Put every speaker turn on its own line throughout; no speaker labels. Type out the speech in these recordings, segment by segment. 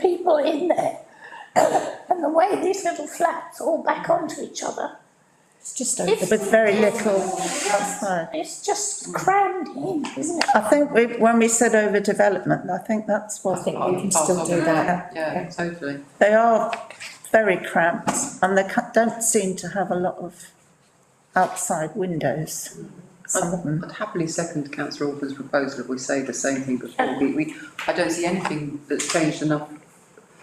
people in there. and the way these little flats all back onto each other,
It's just
If-
with very little outside.
it's just crammed in, isn't it?
I think we, when we said overdevelopment, I think that's
I
what,
think we can still do that.
Yeah, totally.
they are very cramped and they ca- don't seem to have a lot of outside windows, some of them.
I'd happily second councillor Orban's proposal if we say the same thing before. We, we, I don't see anything that's changed enough.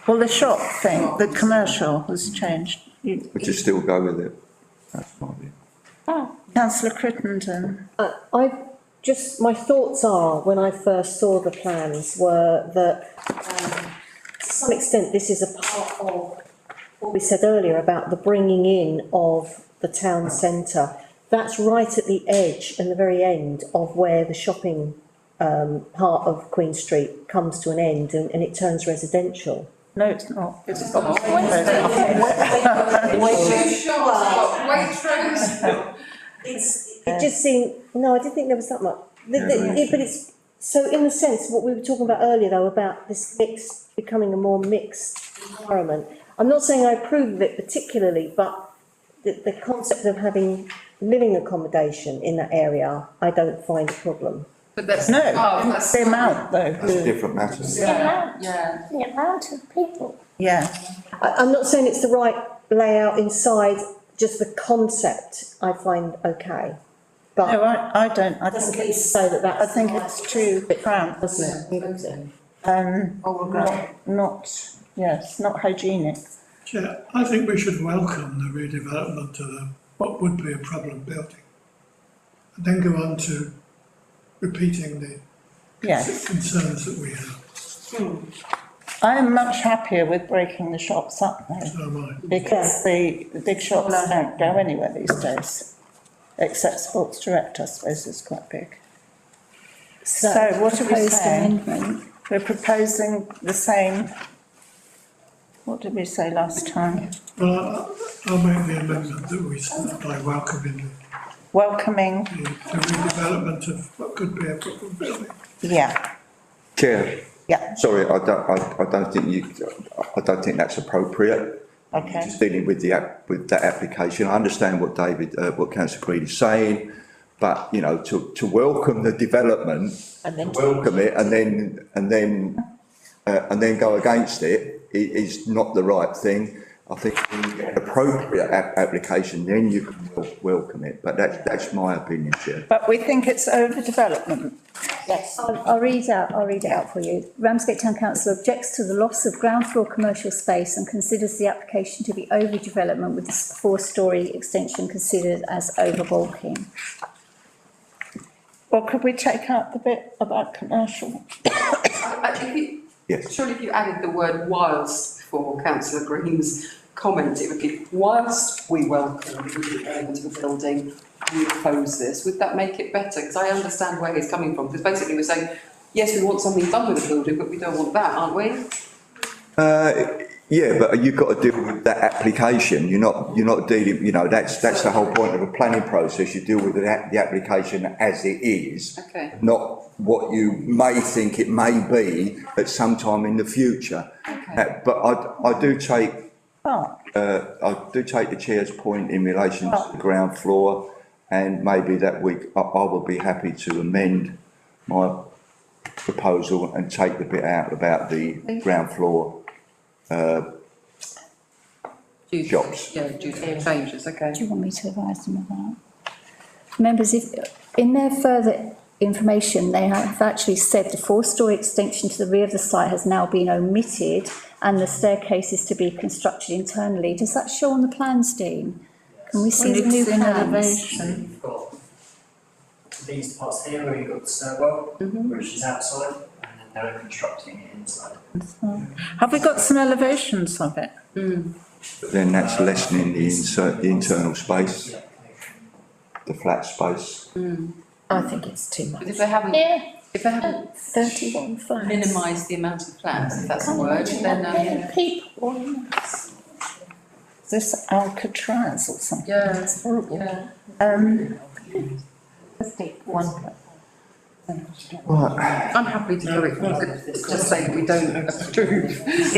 Well, the shop thing, the commercial has changed. You-
Would you still go with it? That's fine.
Councillor Crittenden,
Uh, I just, my thoughts are, when I first saw the plans, were that, um, to some extent, this is a part of what we said earlier about the bringing in of the town centre. That's right at the edge and the very end of where the shopping, um, part of Queen Street comes to an end and, and it turns residential.
no, it's not. It's
not.
It's, it just seemed, no, I didn't think there was that much, The- the-
Yeah,
it- but it's, so in a sense, what we were talking about earlier though, about this mix, becoming a more mixed environment. I'm not saying I approve of it particularly, but the, the concept of having living accommodation in that area, I don't find a problem.
But that's.
No,
Oh,
it's
that's-
the amount though.
That's a
who-
different matter.
The amount,
Yeah,
the amount of people.
Yeah,
I, I'm not saying it's the right layout inside, just the concept I find okay.
no,
But
I, I don't, I
doesn't
think,
it say that that's.
I think it's too cramped,
Doesn't it?
um,
oh,
I'll regret.
not, not, yes, not hygienic.
Chair, I think we should welcome the redevelopment of the, what would be a problem building. And then go on to repeating the
Yes.
concerns that we have,
I am much happier with breaking the shops up though,
so am I.
because the, the big shops don't go anywhere these days. Except Sports Direct, I suppose, is quite big. So what are we
Proposed
saying?
amendment.
We're proposing the same, what did we say last time?
Well, I- I'll make the amendment that we start by welcoming
Welcoming,
the the redevelopment of what could be a problem building.
yeah,
Chair,
yeah,
sorry, I don't, I, I don't think you, I don't think that's appropriate.
okay.
Just dealing with the app, with that application. I understand what David, uh, what councillor Green is saying, but, you know, to, to welcome the development,
And then.
welcome it and then, and then, uh, and then go against it, i- is not the right thing. I think when you get an appropriate a- application, then you can wel- welcome it, but that's, that's my opinion, Chair.
But we think it's overdevelopment.
Yes.
I'll, I'll read out, I'll read it out for you. Ramsgate Town Council objects to the loss of ground floor commercial space and considers the application to be overdevelopment with the four-storey extension considered as overbulking.
Well, could we take out the bit about commercial?
I- I- if you-
Yes.
Surely if you added the word whilst for councillor Green's comment, it would be whilst we welcome the redevelopment of the building, we oppose this, would that make it better? Because I understand where he's coming from, because basically we're saying, yes, we want something done with the building, but we don't want that, aren't we?
Uh, yeah, but you've got to deal with that application, you're not, you're not dealing, you know, that's, that's the whole point of a planning process, you deal with the, app- the application as it is.
Okay.
Not what you may think it may be at some time in the future. Uh, But I, I do take,
But
uh, I do take the chair's point in relation to the ground floor, and maybe that week, I, I would be happy to amend my proposal and take the bit out about the ground floor
Due to-
Jobs.
Yeah, due to changes, okay.
Do you want me to advise them of that? Members, if, in their further information, they have actually said the four-storey extension to the rear of the site has now been omitted and the staircase is to be constructed internally. Does that show on the plans, Dean? Can we see the new
it's an
plans?
elevation.
You've got these parts here where you've got the stairwell, which is outside, and then they're constructing it inside.
Have we got some elevations of it?
then that's lessening the insert, the internal space,
Yeah.
the flat space.
I think it's too much.
But if they haven't,
Yeah,
if they haven't
Thirty-one flats.
minimised the amount of flats, if that's a word, then, um,
many people. in there.
Is this Alcatraz or something?
yeah,
It's horrible.
yeah.
Um,
Right,
I'm happy to do it, just say we don't approve.